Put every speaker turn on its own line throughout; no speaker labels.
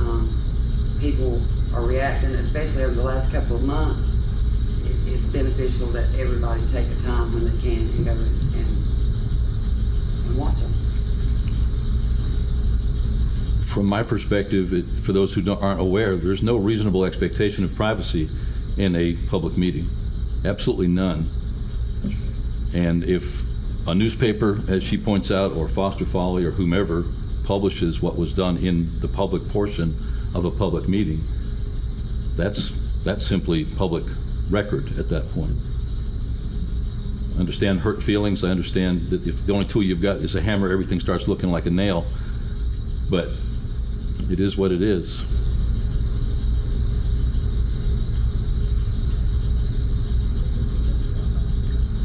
um, people are reacting, especially over the last couple of months, it, it's beneficial that everybody take the time when they can and go and, and watch them.
From my perspective, it- for those who don't- aren't aware, there's no reasonable expectation of privacy in a public meeting. Absolutely none. And if a newspaper, as she points out, or Foster Folly or whomever publishes what was done in the public portion of a public meeting, that's, that's simply public record at that point. I understand hurt feelings, I understand that if the only tool you've got is a hammer, everything starts looking like a nail, but it is what it is.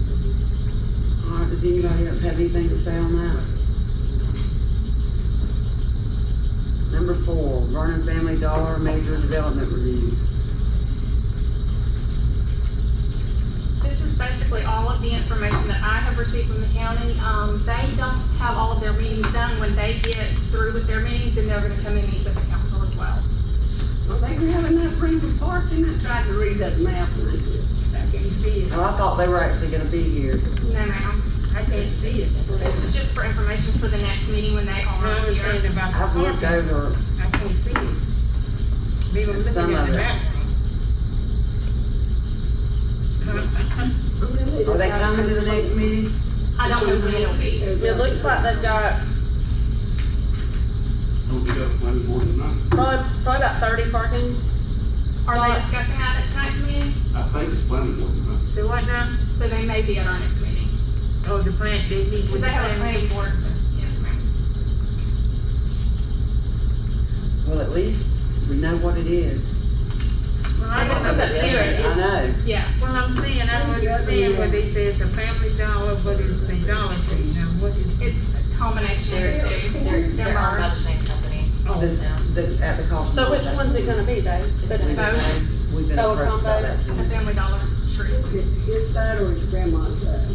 All right, does anybody else have anything to say on that? Number four, Vernon Family Dollar Major Development Review.
This is basically all of the information that I have received from the county. Um, they don't have all of their meetings done. When they get through with their meetings, then they're gonna come and meet with the council as well.
Well, they were having that room before, and I tried to read that map, and I just, I can't see it.
Well, I thought they were actually gonna be here.
No, ma'am.
I can't see it. That's what I
This
was-
is just for information for the next meeting when they
I
are
was
here.
saying about the
I've looked
parking.
over,
I can't see it. We were
Some
looking at
of
the
it.
map.
are they coming to the next meeting?
I don't know when it'll be.
It looks like they've got
Don't get up, play the board tonight.
probably, probably about thirty parking.
Are they discussing that at tonight's meeting?
I think it's planning board tonight.
So what now?
So they may be at our next meeting.
Oh, the plant, they meet
Because
with the
they have a
plant.
planning board. Yes, ma'am.
Well, at least we know what it is.
Well, I
They
don't
have a
understand.
I know.
Yeah.
Well, I'm saying, I don't understand what they say, it's a family dollar, but it's a Dollar Tree, now what is?
It's a combination of the two.
They're, they're owned by the
merged.
same company.
oh,
This, the, at the cost.
So which one's it gonna be though? The
gonna be
boat?
We've been
Oh,
approached by
combo.
that.
A family dollar tree.
His side or his grandma's side?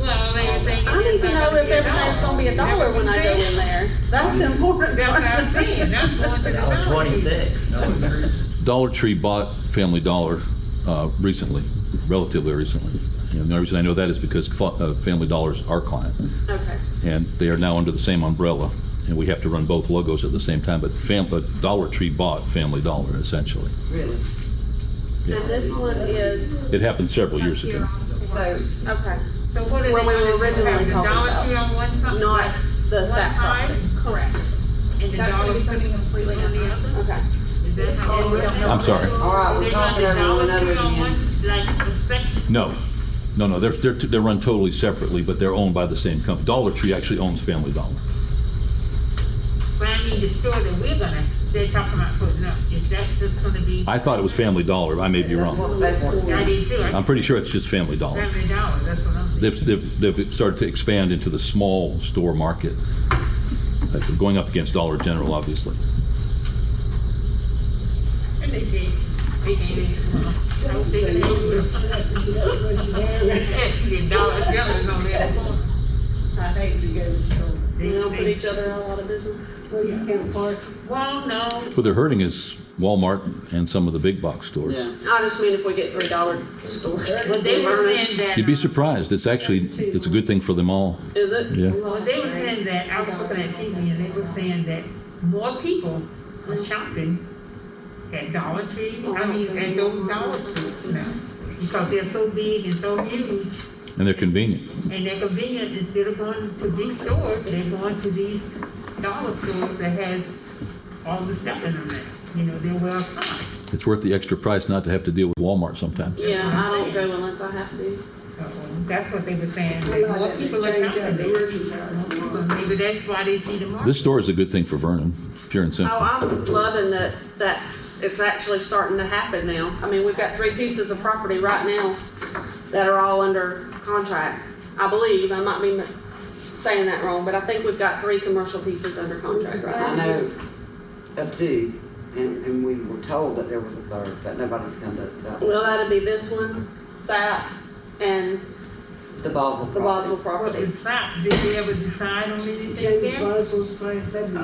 Well, everything.
I don't even know if everything's gonna be a dollar when I go in there. That's the important
That's what I'm
part.
saying, I'm going to the Dollar Tree.
Twenty-six.
Dollar Tree bought Family Dollar uh, recently, relatively recently. And the only reason I know that is because Fa- uh, Family Dollar's our client,
Okay.
and they are now under the same umbrella, and we have to run both logos at the same time. But Fam- but Dollar Tree bought Family Dollar, essentially.
Really?
And this one is,
It happened several years ago.
So,
okay,
So what are they
Where we were
gonna do, have
originally
the
talking
Dollar
about.
Tree on one side?
not the
One
SAP
side?
property.
Correct.
And
That's
the
gonna
Dollar
be something
Tree
completely
on the
different.
other?
Okay.
Is that how? they-
I'm sorry.
all right, we're
They got
talking
the
over one
Dollar
another
Tree on
again.
one, like the section,
No, no, no. They're they're, they're run totally separately, but they're owned by the same company. Dollar Tree actually owns Family Dollar.
but I mean, the store that we're gonna, they're talking about putting up, is that just gonna be?
I thought it was Family Dollar. I may be
that's
wrong.
what they want.
I did too, I
I'm pretty sure it's just Family Dollar.
Family Dollar, that's what I'm saying.
They've, they've, they've started to expand into the small store market, like going up against Dollar General, obviously.
And they did, they did. I was thinking they were. The Dollar General's on that corner.
I hate to go to the store.
They don't put
They-
each other out of business.
Well, you can't park.
Well, no,
What they're hurting is Walmart and some of the big box stores.
Yeah.
I just mean if we get three dollar stores.
But they were saying that.
You'd be
um,
surprised. It's actually, it's a good thing for them all.
Is it?
Yeah.
Well, they were saying that, I was looking at TV and they were saying that more people are shopping at Dollar Tree, I mean, at those dollar stores now. Because they're so big and so huge
And they're convenient.
and they're convenient, instead of going to big stores, they're going to these dollar stores that has all the stuff in them now. You know, they're well stocked.
It's worth the extra price not to have to deal with Walmart sometimes.
Yeah, I don't go unless I have to.
So, That's what they were saying,
I
that
love
more
that they
people are
change up
shopping
the
there.
urgent hour.
But Maybe that's why they see the market.
This store is a good thing for Vernon, pure and
Oh,
simple.
I'm loving that, that it's actually starting to happen now. I mean, we've got three pieces of property right now that are all under contract, I believe. I might be saying that wrong, but I think we've got three commercial pieces under contract right
I
now.
know of two, and, and we were told that there was a third, but nobody's come to us about it.
Well, that'd be this one, SAP, and
The Boswell property.
the Boswell property.
Well, it's not, did they ever decide on anything
James
there?
Boswell's place, that'd be